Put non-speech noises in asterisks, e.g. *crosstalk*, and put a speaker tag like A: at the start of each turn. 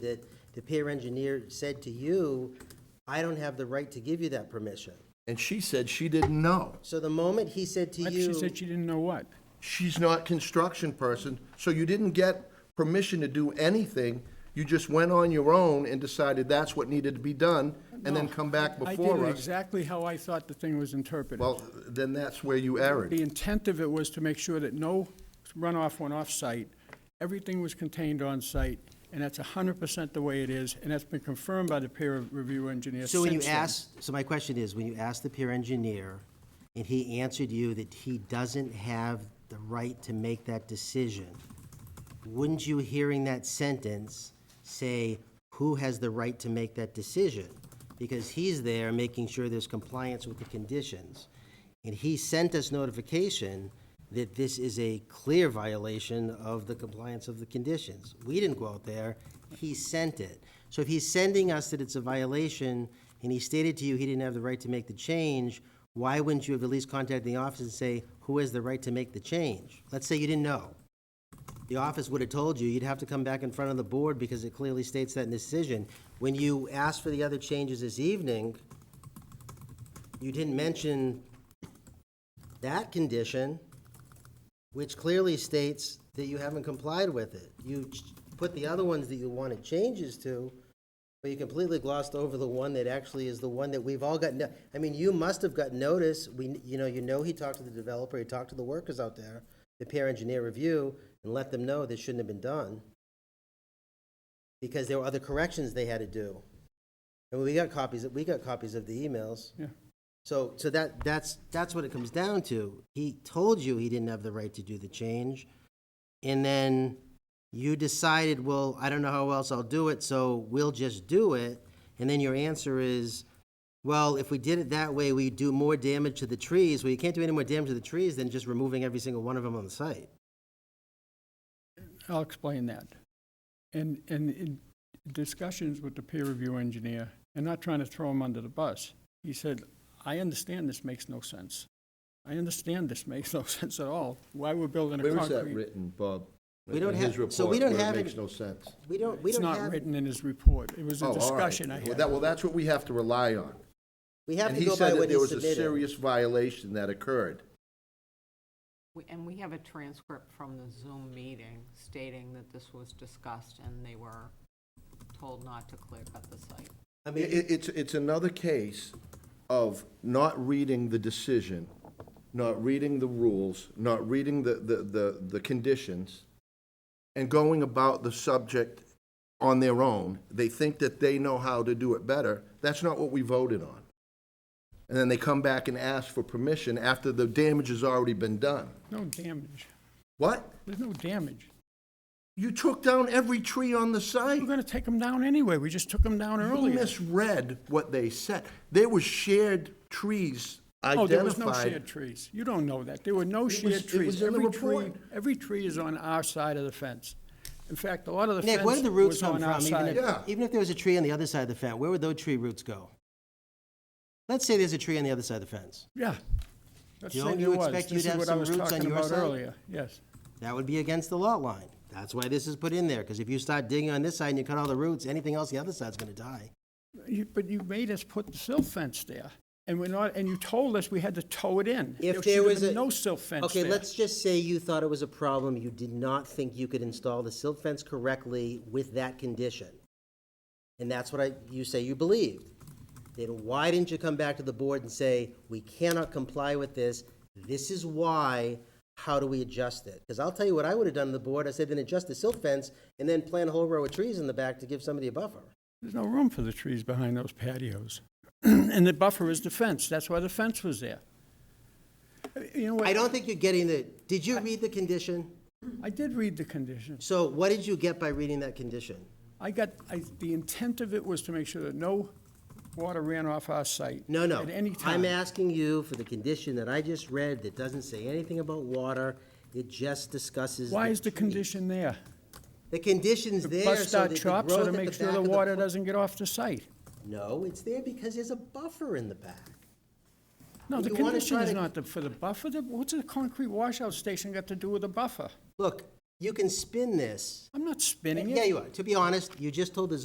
A: that the peer engineer said to you, I don't have the right to give you that permission.
B: And she said she didn't know.
A: So the moment he said to
C: What?
A: you.
C: She said she didn't know what.
B: She's not construction person, so you didn't get permission to do anything. You just went on your own and decided that's what needed to be done, and then come back
C: I
B: before
C: did it
B: us.
C: exactly how I thought the thing was interpreted.
B: Well, then that's where you erred.
C: The intent of it was to make sure that no runoff went off-site, everything was contained on-site, and that's hundred percent the way it is, and that's been confirmed by the peer review engineer
A: So when you
C: since then.
A: asked, so my question is, when you asked the peer engineer, and he answered you that he doesn't have the right to make that decision, wouldn't you, hearing that sentence, say, who has the right to make that decision? Because he's there making sure there's compliance with the conditions. And he sent us notification that this is a clear violation of the compliance of the conditions. We didn't go out there, he sent it. So if he's sending us that it's a violation, and he stated to you he didn't have the right to make the change, why wouldn't you have at least contacted the office and say, who has the right to make the change? Let's say you didn't know. The office would have told you, you'd have to come back in front of the board because it clearly states that in the decision. When you asked for the other changes this evening, you didn't mention that condition, which clearly states that you haven't complied with it. You ch- put the other ones that you wanted changes to, but you completely glossed over the one that actually is the one that we've all gotten, I mean, you must have gotten notice, we, you know, you know he talked to the developer, he talked to the workers out there, the peer engineer review, and let them know this shouldn't have been done. Because there were other corrections they had to do. And we got copies, we got copies of the emails.
C: Yeah.
A: So, so that, that's, that's what it comes down to. He told you he didn't have the right to do the change, and then you decided, well, I don't know how else I'll do it, so we'll just do it. And then your answer is, well, if we did it that way, we do more damage to the trees. Well, you can't do any more damage to the trees than just removing every single one of them on the site.
C: I'll explain that. And, and in discussions with the peer review engineer, and not trying to throw him under the bus, he said, I understand this makes no sense. I understand this makes no *laughs* sense at all, why we're building a
B: Where is that
C: concrete.
B: written, Bob?
A: We don't
B: In
A: have-
B: his report,
A: so we don't
B: where
A: have
B: It
A: it-
B: makes no sense.
A: We don't, we
C: It's
A: don't
C: not
A: have,
C: written in his report, it was
B: Oh,
C: a
B: all right.
C: discussion I
B: Well,
C: had.
B: that- Well, that's what we have to rely on.
A: we have
B: And
A: to
B: he
A: go by
B: said that
A: what he
B: there was a
A: submitted.
B: serious violation that occurred.
D: We- And we have a transcript from the Zoom meeting stating that this was discussed and they were told not to clear cut the site.
A: I
B: I mean,
A: mean,
B: it, it's, it's another case of not reading the decision, not reading the rules, not reading the, the, the, the conditions, and going about the subject on their own. They think that they know how to do it better. That's not what we voted on. And then they come back and ask for permission after the damage has already been done.
C: No damage,
B: What?
C: there's no damage.
B: You took down every tree on the site.
C: We're gonna take them down anyway, we just took them down
B: You
C: earlier.
B: misread what they said. There were shared trees
C: Oh, there was no
B: identified.
C: shared trees, you don't know that, there were no
B: was-
C: shared
B: it was
C: trees.
B: in the
C: Every tree,
B: report.
C: every tree is on our side of the fence. In fact, a lot of the
A: Nick, where
C: fence
A: did the roots
C: was
A: come
C: on our
A: from? Even
C: side.
B: Yeah.
A: if, even if there was a tree on the other side of the fence, where would those tree roots go? Let's say there's a tree on the other side of the fence.
C: Yeah. Let's
A: Don't
C: say
A: you
C: there was.
A: expect you
C: This
A: to
C: is
A: have
C: what I
A: some
C: was
A: roots on
C: talking
A: your
C: about
A: side?
C: earlier. Yes.
A: That would be against the lot line. That's why this is put in there, because if you start digging on this side and you cut all the roots, anything else the other side's gonna die.
C: You- But you made us put the silt fence there, and we're not, and you told us we had to tow it in.
A: If
C: should
A: there
C: have
A: was
C: been
A: a.
C: No silt fence
A: Okay,
C: there.
A: let's just say you thought it was a problem, you did not think you could install the silt fence correctly with that condition. And that's what I, you say you believed. Then why didn't you come back to the board and say, we cannot comply with this, this is why, how do we adjust it? Because I'll tell you what I would have done to the board, I said, then adjust the silt fence, and then plant a whole row of trees in the back to give somebody a buffer.
C: There's no room for the trees behind those patios. *clears throat* And the buffer is the fence, that's why the fence was there. You know what?
A: I don't think you're getting the, did you read the condition?
C: I did read the conditions.
A: So what did you get by reading that condition?
C: I got, I, the intent of it was to make sure that no water ran off our site.
A: No, no.
C: At any time.
A: I'm asking you for the condition that I just read that doesn't say anything about water. It just discusses.
C: Why is the
A: trees.
C: condition there?
A: The condition's
C: To
A: there
C: bust
A: so
C: our
A: that the growth
C: chops so to
A: at the
C: make sure
A: back
C: the
A: of
C: water
A: plant-
C: doesn't get off the site.
A: No, it's there because there's a buffer in the back.
C: No, the
A: You wanna
C: condition
A: try
C: is
A: to-
C: not the- for the buffer, The- what's the concrete washout station got to do with the buffer?
A: Look, You can spin this.
C: I'm not spinning it.
A: Yeah, you are. To be honest, you just told the